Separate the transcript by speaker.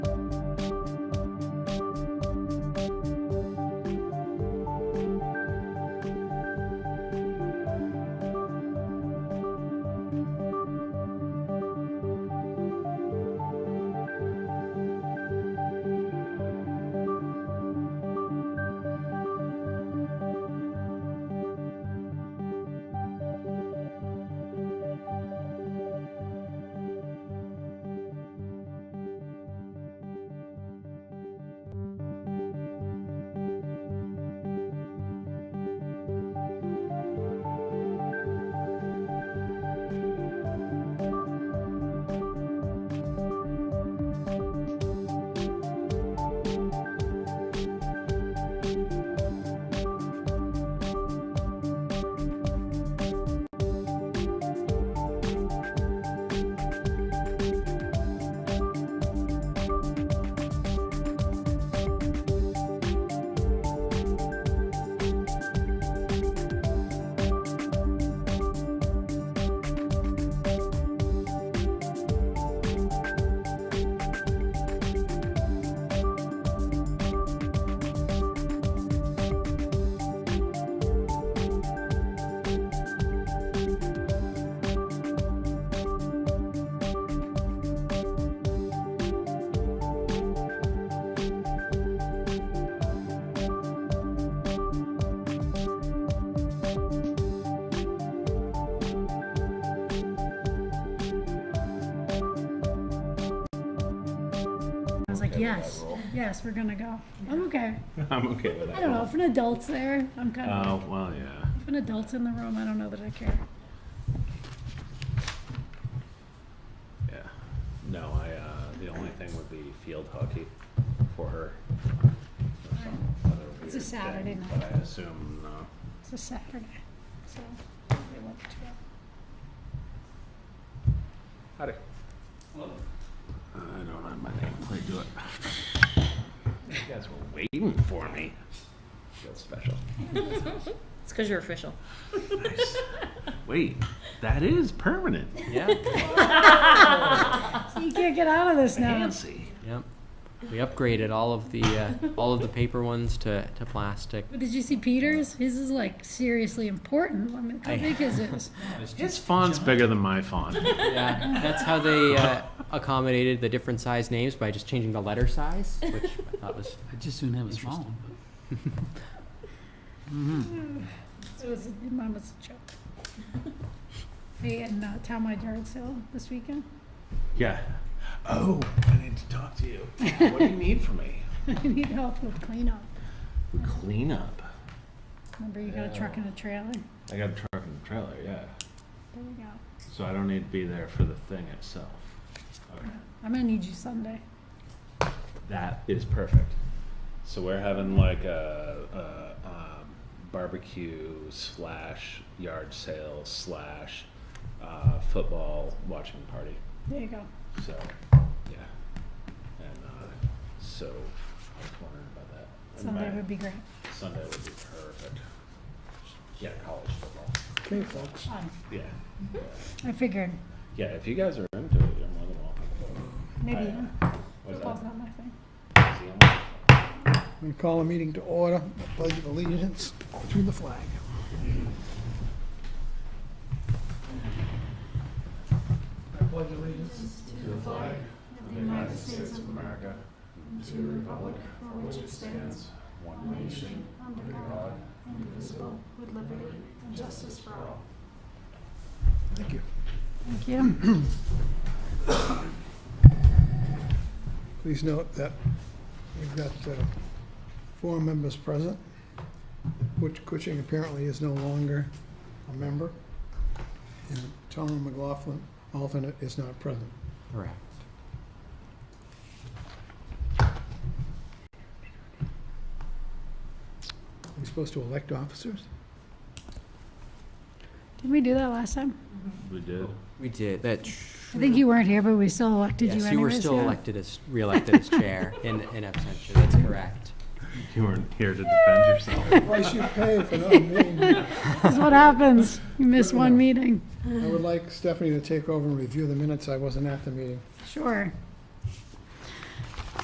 Speaker 1: I was like,
Speaker 2: okay with that
Speaker 1: yes,
Speaker 2: rule.
Speaker 1: yes, we're gonna go. I'm okay.
Speaker 2: I'm okay with that.
Speaker 1: I don't know.
Speaker 2: rule.
Speaker 1: If an adult's there, I'm kind of.
Speaker 2: Uh, well, yeah.
Speaker 1: If an adult's in the room, I don't know that I care.
Speaker 2: Yeah. No, I, uh, the only thing would be field hockey for her. Or some other
Speaker 1: It's a
Speaker 2: weird
Speaker 1: Saturday
Speaker 2: thing,
Speaker 1: night.
Speaker 2: But I assume, no.
Speaker 1: It's a Saturday, so we look to it.
Speaker 2: Howdy. Uh, I don't have my nameplate, do it. You guys were waiting for me. Feels special.
Speaker 3: It's because you're official.
Speaker 2: Nice. Wait, that is permanent.
Speaker 4: Yeah.
Speaker 1: So you can't get out of this now.
Speaker 2: Fancy.
Speaker 4: Yep. We upgraded all of the uh, all of the paper ones to, to plastic.
Speaker 1: But did you see Peter's? His is like seriously important. I mean, how
Speaker 4: I-
Speaker 1: big is his?
Speaker 2: His font's bigger than my font.
Speaker 4: Yeah, that's how they uh, accommodated the different size names by just changing the letter size, which I thought was
Speaker 5: I just soon have a small one.
Speaker 1: It was, mine was a joke. Hey, and uh, town my yard sale this weekend.
Speaker 2: Yeah. Oh, I need to talk to you. What do you need from me?
Speaker 1: I need help with cleanup.
Speaker 2: Clean up.
Speaker 1: Remember, you got a truck and a trailer.
Speaker 2: I got a truck and a trailer, yeah.
Speaker 1: There we go.
Speaker 2: So I don't need to be there for the thing itself. Okay.
Speaker 1: I'm gonna need you Sunday.
Speaker 2: That is perfect. So we're having like a, a um, barbecue slash yard sale slash uh, football watching party.
Speaker 1: There you go.
Speaker 2: So, yeah. And uh, so I was wondering about that. And
Speaker 1: Sunday
Speaker 2: my-
Speaker 1: would be great.
Speaker 2: Sunday would be perfect. Yeah, college football.
Speaker 1: Okay, folks. Fun.
Speaker 2: Yeah.
Speaker 1: I figured
Speaker 2: Yeah, if you guys are into it, you're more than welcome.
Speaker 1: maybe
Speaker 2: I- What's
Speaker 1: football's
Speaker 2: that?
Speaker 1: not my thing.
Speaker 2: See you on-
Speaker 6: We call a meeting to order, a pledge of allegiance to the flag. Thank you.
Speaker 1: Thank you.
Speaker 6: Please note that we've got uh, four members present. Which Cushing apparently is no longer a member. And Tom McLaughlin, alternate, is not present.
Speaker 4: correct.
Speaker 6: Are we supposed to elect officers?
Speaker 1: Didn't we do that last time?
Speaker 2: We did.
Speaker 4: We did that.
Speaker 1: I think you weren't here, but we still elected you
Speaker 4: yes,
Speaker 1: anyways.
Speaker 4: you were still
Speaker 1: yeah.
Speaker 4: elected as reelected as chair in in absentia. That's correct.
Speaker 2: You weren't here to defend yourself.
Speaker 6: Price you pay for not meeting. I
Speaker 1: This is what happens. You miss one meeting.
Speaker 6: would like Stephanie to take over and review the minutes. I wasn't at the meeting.
Speaker 1: Sure.